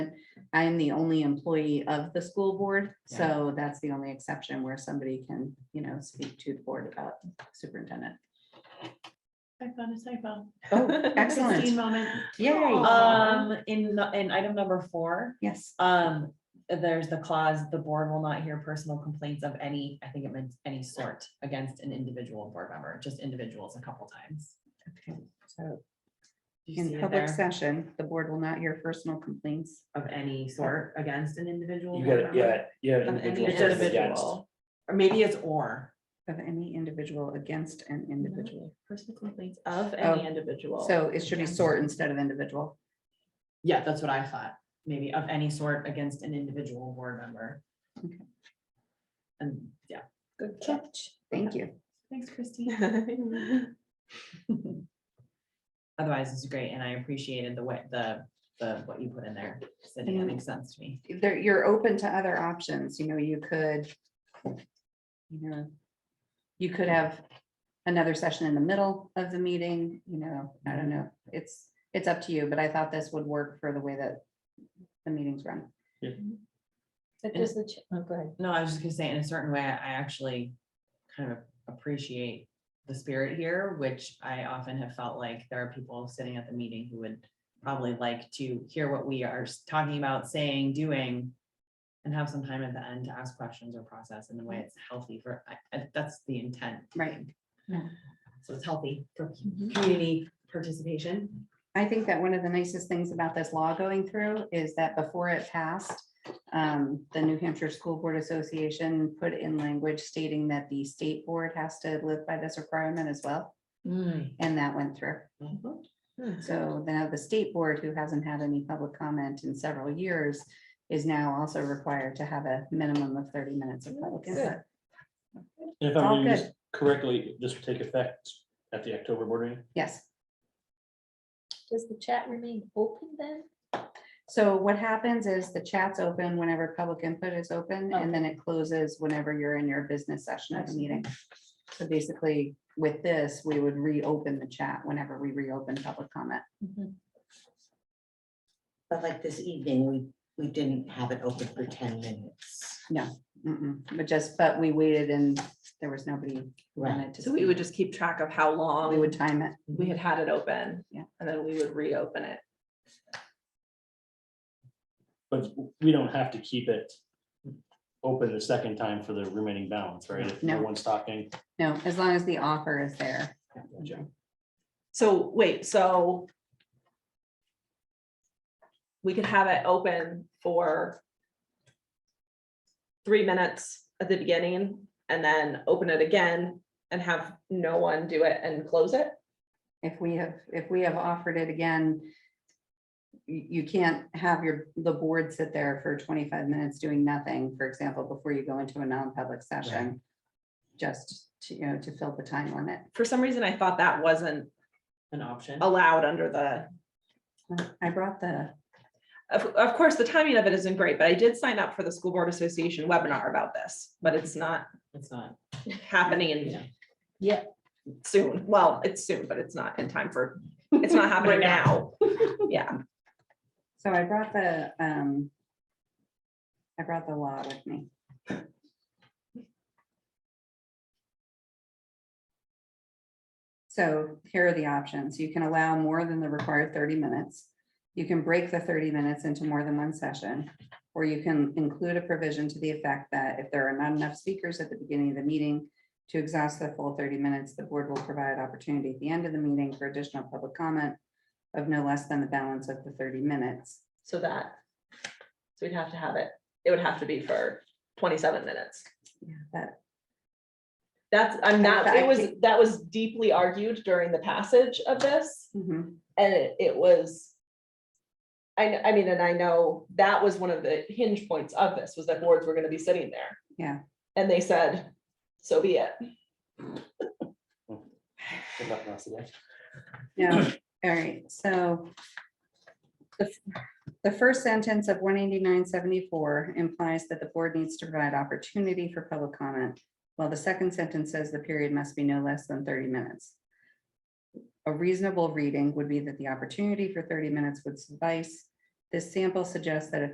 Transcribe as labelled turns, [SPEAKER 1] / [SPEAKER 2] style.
[SPEAKER 1] I am the only employee of the school board, so that's the only exception where somebody can, you know, speak to the board about superintendent.
[SPEAKER 2] I found a typo.
[SPEAKER 1] Oh,
[SPEAKER 2] Christine
[SPEAKER 1] excellent.
[SPEAKER 2] moment.
[SPEAKER 1] Yay.
[SPEAKER 2] Aw.
[SPEAKER 3] Um, in, the- in item number four,
[SPEAKER 1] Yes.
[SPEAKER 3] um, there's the clause, the board will not hear personal complaints of any, I think it meant any sort against an individual board member, just individuals a couple times.
[SPEAKER 1] Okay. So
[SPEAKER 3] Do you see
[SPEAKER 1] in
[SPEAKER 3] it
[SPEAKER 1] public
[SPEAKER 3] there?
[SPEAKER 1] session, the board will not hear personal complaints.
[SPEAKER 3] Of any sort against an individual.
[SPEAKER 4] You
[SPEAKER 3] board
[SPEAKER 4] got,
[SPEAKER 3] member?
[SPEAKER 4] yeah, yeah.
[SPEAKER 3] Of any
[SPEAKER 4] individual
[SPEAKER 3] just-
[SPEAKER 4] versus against.
[SPEAKER 3] individual. Or maybe it's or.
[SPEAKER 1] Of any individual against an individual.
[SPEAKER 2] Personal complaints of
[SPEAKER 1] Oh,
[SPEAKER 2] any individual.
[SPEAKER 1] So it should be sort instead of individual.
[SPEAKER 3] Yeah, that's what I thought. Maybe of any sort against an individual board member.
[SPEAKER 1] Okay.
[SPEAKER 3] And, yeah.
[SPEAKER 2] Good catch.
[SPEAKER 1] Thank you.
[SPEAKER 2] Thanks, Christine.
[SPEAKER 3] Otherwise, it's great, and I appreciated the way, the, the, what you put in there, Cindy, that makes sense to me.
[SPEAKER 1] there, you're open to other options, you know, you could. You know, you could have another session in the middle of the meeting, you know, I don't know, it's, it's up to you, but I thought this would work for the way that. The meetings run,
[SPEAKER 5] But
[SPEAKER 3] And-
[SPEAKER 5] does the, ch- oh, go ahead.
[SPEAKER 3] No, I was just gonna say, in a certain way, I I actually kind of appreciate the spirit here, which I often have felt like there are people sitting at the meeting who would probably like to hear what we are s- talking about, saying, doing, and have some time at the end to ask questions or process in the way it's healthy for, I- I- that's the intent.
[SPEAKER 1] right,
[SPEAKER 3] So it's healthy for community participation.
[SPEAKER 1] I think that one of the nicest things about this law going through is that before it passed. Um, the New Hampshire School Board Association put in language stating that the state board has to live by this requirement as well,
[SPEAKER 5] Mm.
[SPEAKER 1] and that went through. So now the state board, who hasn't had any public comment in several years, is now also required to have a minimum of thirty minutes of public input.
[SPEAKER 4] If
[SPEAKER 1] All
[SPEAKER 4] I'm reading this
[SPEAKER 1] good.
[SPEAKER 4] correctly, this will take effect at the October board meeting.
[SPEAKER 1] Yes.
[SPEAKER 5] Does the chat remain open then?
[SPEAKER 1] So what happens is the chat's open whenever public input is open, and then it closes whenever you're in your business session of the meeting. So basically, with this, we would reopen the chat whenever we reopen public comment.
[SPEAKER 6] But like this evening, we, we didn't have it open for ten minutes.
[SPEAKER 1] Mm-mm. But just, but we waited and there was nobody who wanted to.
[SPEAKER 2] So we
[SPEAKER 1] speak.
[SPEAKER 2] would just keep track of how
[SPEAKER 1] We
[SPEAKER 2] long
[SPEAKER 1] would time it.
[SPEAKER 2] we had had it open.
[SPEAKER 1] Yeah.
[SPEAKER 2] And then we would reopen it.
[SPEAKER 4] But we don't have to keep it open the second time for the remaining balance, right? If
[SPEAKER 1] No.
[SPEAKER 4] No one's talking.
[SPEAKER 1] No, as long as the offer is there.
[SPEAKER 2] So wait, so we could have it open for three minutes at the beginning and then open it again and have no one do it and close it?
[SPEAKER 1] If we have, if we have offered it again, you, you can't have your, the board sit there for twenty-five minutes doing nothing, for example, before you go into a non-public session. Just to, you know, to fill the time limit.
[SPEAKER 2] For some reason, I thought that wasn't
[SPEAKER 3] An option.
[SPEAKER 6] Oh.
[SPEAKER 2] allowed under the,
[SPEAKER 1] I brought the,
[SPEAKER 2] of, of course, the timing of it isn't great, but I did sign up for the School Board Association webinar about this, but it's not
[SPEAKER 3] It's not.
[SPEAKER 2] happening
[SPEAKER 3] Yeah.
[SPEAKER 5] Yeah.
[SPEAKER 2] soon. Well, it's soon, but it's not in time for, it's not happening
[SPEAKER 3] Right
[SPEAKER 2] now.
[SPEAKER 3] now.
[SPEAKER 2] Yeah.
[SPEAKER 1] so I brought the, um, I brought the law with me. So here are the options. You can allow more than the required thirty minutes. You can break the thirty minutes into more than one session. Or you can include a provision to the effect that if there are not enough speakers at the beginning of the meeting to exhaust the full thirty minutes, the board will provide opportunity at the end of the meeting for additional public comment of no less than the balance of the thirty minutes.
[SPEAKER 2] So that, so we'd have to have it, it would have to be for twenty-seven minutes.
[SPEAKER 1] Yeah, That,
[SPEAKER 2] That's, I'm not, it was,
[SPEAKER 1] Okay.
[SPEAKER 2] that was deeply argued during the passage of this,
[SPEAKER 1] mhm,
[SPEAKER 2] and it- it was. I, kn- I mean, and I know that was one of the hinge points of this, was that boards were gonna be sitting there.
[SPEAKER 1] Yeah.
[SPEAKER 2] And they said, so be it.
[SPEAKER 4] If nothing else today.
[SPEAKER 1] no, all right, so. The, f- the first sentence of one eighty-nine seventy-four implies that the board needs to provide opportunity for public comment. While the second sentence says the period must be no less than thirty minutes. A reasonable reading would be that the opportunity for thirty minutes would suffice. This sample suggests that if